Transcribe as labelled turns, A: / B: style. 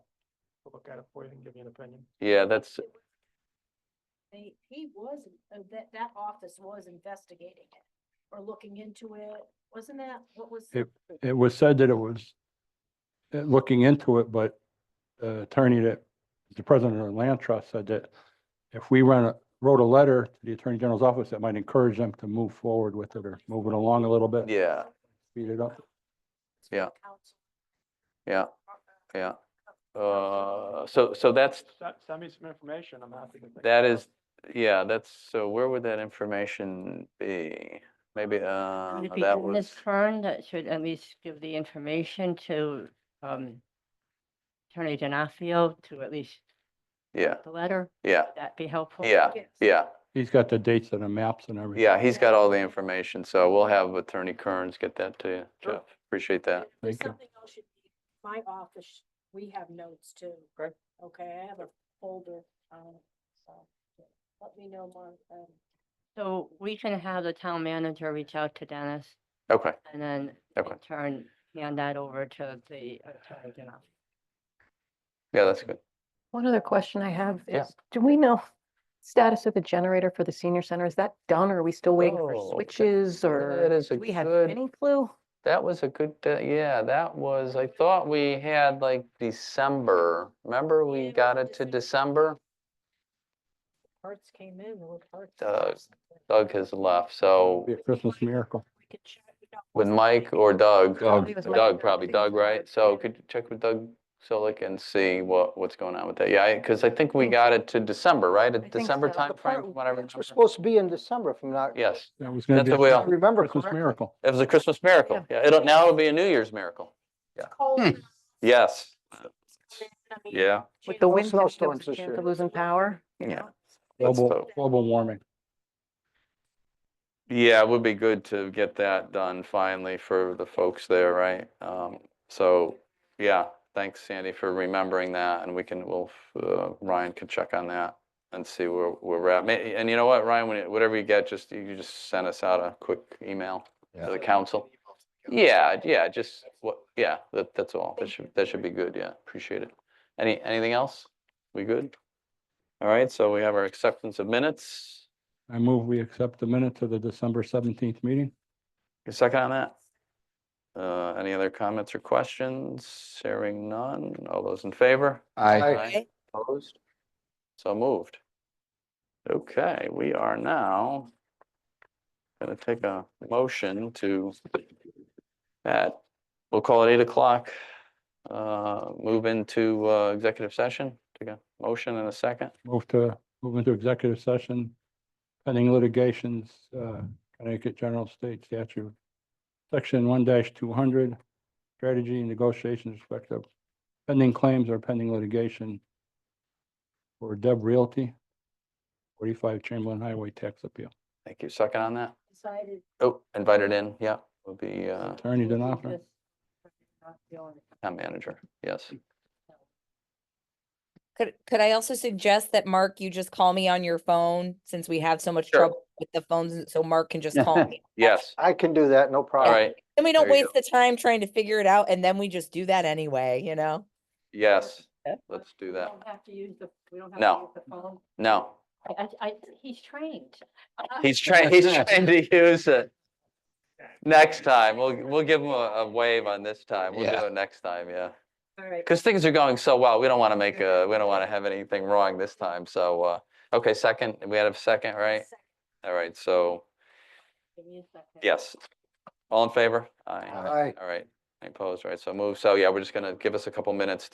A: look at it for you and give you an opinion.
B: Yeah, that's,
C: He, he was, uh, that, that office was investigating it or looking into it. Wasn't that, what was?
D: It- It was said that it was uh, looking into it, but the attorney that, the president of the land trust said that if we ran, a- wrote a letter to the attorney general's office, that might encourage them to move forward with it or move it along a little bit.
B: yeah,
D: Speed it up.
B: Yeah.
C: Council.
B: yeah, yeah. Uh, so, so that's,
A: Send, send me some information, I'm happy to. think
B: that
A: about it.
B: is, yeah, that's, so where would that information be? Maybe, uh,
E: Would it be
B: that
E: in
B: was,
E: this Fern that should at least give the information to um Attorney Denafio to at least
B: yeah,
E: the letter?
B: yeah,
E: Would that be helpful?
B: yeah,
C: Yes.
B: yeah.
D: He's got the dates and the maps and everything.
B: Yeah, he's got all the information, so we'll have Attorney Kearns get that to you,
A: Sure.
B: Jeff. Appreciate that.
C: If there's
D: Thank you.
C: Something else should be, my office, we have notes too.
A: Okay.
C: Okay, I have a folder, um, so yeah, let me know more, um,
E: So we can have the town manager reach out to Dennis
B: Okay,
E: and then
B: Okay.
E: in turn hand that over to the Attorney Denafio.
B: yeah, that's good.
F: One other question I have
B: Yeah.
F: is, do we know status of the generator for the senior center? Is that done or are we still waiting
B: Oh,
F: for
B: okay.
F: switches or?
B: That is a
F: do We have
B: good-
F: any clue?
B: That was a good, uh, yeah, that was, I thought we had like December. Remember,
C: Yeah, it
B: we
C: was
B: got
C: in
B: it to
C: December.
B: December?
C: parts came in, there were parts.
B: Doug- Doug has left, so
D: Be a Christmas miracle.
C: We could check, no,
B: with Mike or Doug?
D: Doug.
F: It was Mike.
B: Doug, probably
F: Things
B: Doug,
F: were-
B: right? So
F: yeah.
B: could you check with Doug Silic and see what, what's going on with that? Yeah, because I think we got it to December, right? At
F: think
B: December
F: so. The
B: timeframe, from what I
G: It was
B: remember.
G: supposed to be in December from now.
B: Yes,
D: That was gonna
B: That's
D: be a
B: the way I-
G: Remember
D: Christmas
G: correctly.
D: miracle.
B: it was a Christmas miracle. Yeah, it'll, now it'll be a New Year's miracle.
C: it's cold.
D: Hmm.
C: now,
B: Yes,
C: it's cold in, I mean,
B: yeah.
C: January.
F: With the wind,
G: No
F: there was a
G: snowstorms this
F: chance
G: year.
F: of losing power. you
B: Yeah.
F: know?
B: let's
D: Global,
B: hope.
D: global warming.
B: Yeah, it would be good to get that done finally for the folks there, right? Um, so, yeah, thanks Sandy for remembering that and we can, we'll, uh, Ryan can check on that and see where, where we're at. May- And you know what, Ryan, when you- whatever you get, just, you just send us out a quick email to the council. Yeah, yeah, just what, yeah, that, that's all. That
C: Thank
B: should,
C: you.
B: that should be good. Yeah, appreciate it. Any, anything else? We good? All right, so we have our acceptance of minutes.
D: I move we accept the minutes of the December seventeenth meeting.
B: A second on that? Uh, any other comments or questions? Hearing none. All those in favor?
G: Aye.
B: Opposed? So moved. Okay, we are now gonna take a motion to at, we'll call it eight o'clock. Uh, move into, uh, executive session. Take a motion and a second.
D: Move to, move into executive session pending litigations, uh, Connecticut General State Statute. Section one two hundred, strategy and negotiations respect of pending claims or pending litigation for Deb Realty, forty-five Chamberlain Highway Tax Appeal.
B: Thank you. Second on that.
C: Decided
B: Oh, invited in. Yeah, will be, uh,
D: Attorney Denofa.
E: Just-
B: town manager. Yes.
H: Could, could I also suggest that, Mark, you just call me on your phone since we have so much
B: Sure.
H: trouble with the phones, so Mark can just call me.
B: Yes.
G: I can do that, no
B: All
G: problem.
B: right.
H: Then we don't
B: There you
H: waste the time trying to figure it out and then we just do that anyway, you know?
B: Yes,
H: Yeah.
B: let's do
E: We
B: that.
E: don't have to use the, we don't have
B: No.
E: to use the phone.
B: No,
E: I, I, I, he's trained.
B: he's trying, he's trying to use it. Next time, we'll, we'll give him a, a wave on this time. We'll do
G: Yeah.
B: it next time, yeah.
C: All right.
B: Because things are going so well, we don't want to make a, we don't want to have anything wrong this time, so, uh, okay, second, we had a second, right?
C: second,
B: All right, so,
E: Give me a second.
B: yes. All in favor?
G: Aye.
B: All right, Any opposed, All right, so move, so yeah, we're just gonna, give us a couple minutes